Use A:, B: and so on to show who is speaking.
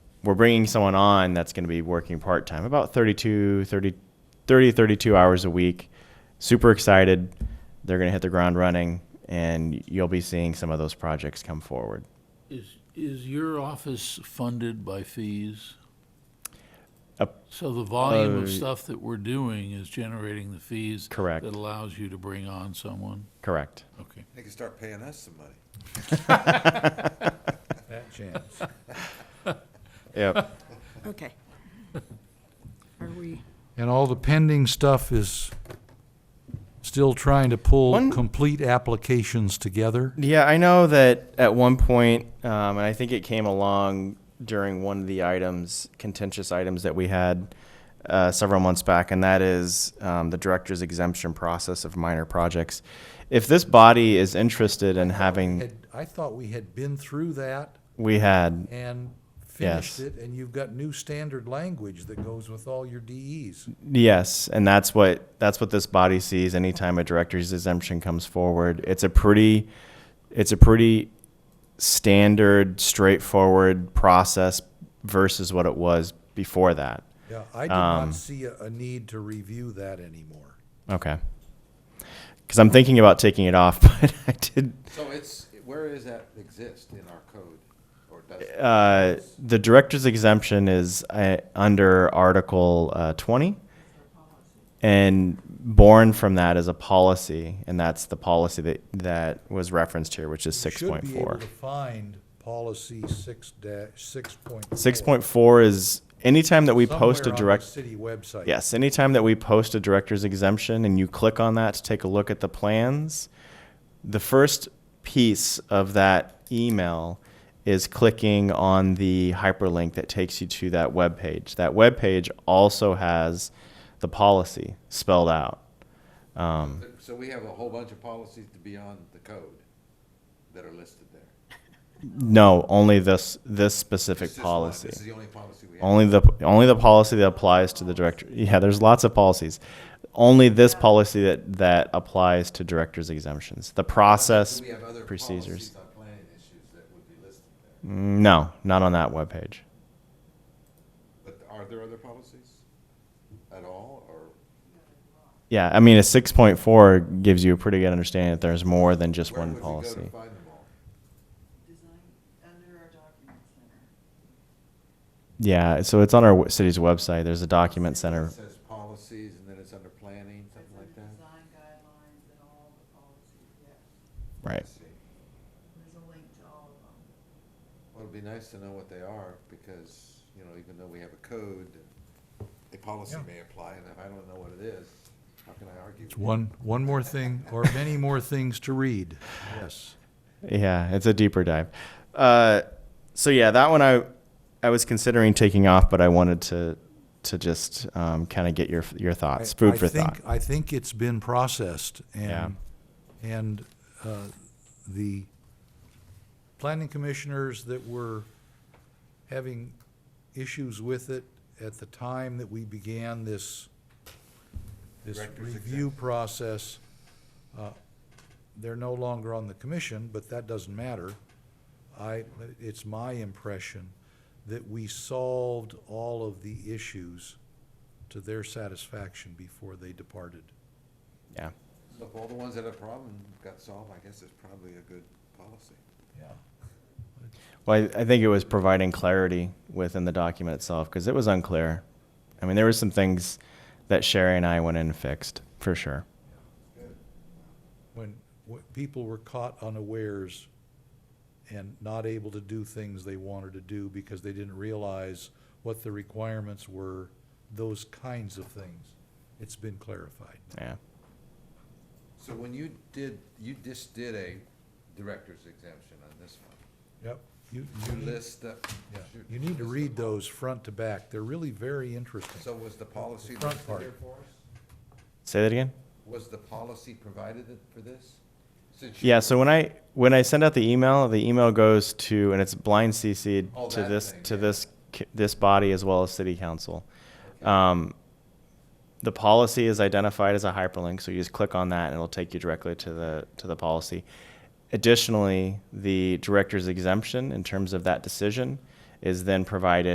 A: we're bringing someone on that's going to be working part time, about 32, 30, 30, 32 hours a week. Super excited. They're going to hit the ground running, and you'll be seeing some of those projects come forward.
B: Is, is your office funded by fees?
A: Up-
B: So the volume
A: Uh,
B: of stuff that we're doing is generating the fees?
A: Correct.
B: That allows you to bring on someone?
A: Correct.
B: Okay.
C: They can start paying us some money.
D: That chance.
A: Yep.
E: Okay. Are we,
D: And all the pending stuff is still trying to pull
A: One-
D: complete applications together?
A: yeah, I know that at one point, um, and I think it came along during one of the items, contentious items that we had uh, several months back, and that is um, the director's exemption process of minor projects. If this body is interested in having,
D: Had- I thought we had been through that
A: we had
D: and
A: Yes.
D: finished it, and you've got new standard language that goes with all your DEs.
A: Yes, and that's what that's what this body sees anytime a director's exemption comes forward. It's a pretty it's a pretty standard, straightforward process versus what it was before that.
D: Yeah, I do not
A: Um,
D: see a, a need to review that anymore.
A: Okay. Cuz I'm thinking about taking it off, but I did
C: So it's, where is that exist in our code? Or does it?
A: uh, the director's exemption is uh, under Article uh, 20. And born from that is a policy, and that's the policy that, that was referenced here, which is
D: You Should be able
A: 6.4.
D: to find policy six dash, six point.
A: 6.4 is anytime that we post a direct.
D: City website.
A: Yes, anytime that we post a director's exemption and you click on that to take a look at the plans, the first piece of that email is clicking on the hyperlink that takes you to that web page. That web page also has the policy spelled out. Um,
C: So we have a whole bunch of policies to be on the code that are listed there.
A: no, only this this
C: It's
A: specific
C: just one.
A: policy.
C: This is the only policy we have.
A: Only the only the policy that applies to the director. Yeah, there's lots of policies. Only this policy that that applies to directors exemptions. The process
C: Do we have other
A: procedures.
C: policies on planning issues that would be listed there?
A: No, not on that webpage.
C: But are there other policies at all, or?
A: Yeah, I mean a 6.4 gives you a pretty good understanding that there's more than just
C: where
A: one
C: would we go to
A: policy.
C: find them all?
F: design under our document center.
A: Yeah, so it's on our w- city's website. There's a document
C: It
A: center.
C: says policies, and then it's under planning, something like
F: It's under
C: that?
F: design guidelines and all the policies, yes.
A: Right.
C: I see.
F: There's a link to all of them.
C: Well, it'd be nice to know what they are, because, you know, even though we have a code, a policy
D: Yeah.
C: may apply, and if I don't know what it is, how can I argue?
D: It's
C: with you?
D: One, one more thing, or many more things to read, yes.
A: Yeah, it's a deeper dive. Uh, so yeah, that one I I was considering taking off, but I wanted to to just um, kind of get your your thoughts,
D: I-
A: food
D: I
A: for
D: think-
A: thought.
D: I think it's been processed
A: Yeah.
D: and, and, uh, the planning commissioners that were having issues with it at the time that we began this, this
C: Director's
D: review process, uh, they're no longer on the commission, but that doesn't matter. I, it's my impression that we solved all of the issues to their satisfaction before they departed.
A: Yeah.
C: So If all the ones that have problem got solved, I guess it's probably a good policy.
D: Yeah.
A: Well, I, I think it was providing clarity within the document itself because it was unclear. I mean, there were some things that Sherry and I went in and fixed for sure.
D: When, when people were caught unawares and not able to do things they wanted to do because they didn't realize what the requirements were, those kinds of things. It's been clarified.
A: Yeah.
C: So when you did, you just did a director's exemption on this one.
D: Yep. You,
C: You
D: you,
C: list the.
D: yeah.
C: you-
D: you need to
C: list
D: read
C: the-
D: those front to back. They're really very interesting.
C: So was the policy
D: Front
C: listed
D: part.
C: there for us?
A: Say that again.
C: Was the policy provided it- for this? Since you-
A: Yeah. So when I when I send out the email, the email goes to and it's blind CC'd
C: Oh,
A: to
C: that
A: this
C: thing,
A: to
C: yeah.
A: this c- this body as well as City Council.
C: Okay.
A: Um, the policy is identified as a hyperlink, so you just click on that and it'll take you directly to the to the policy. Additionally, the director's exemption in terms of that decision is then provided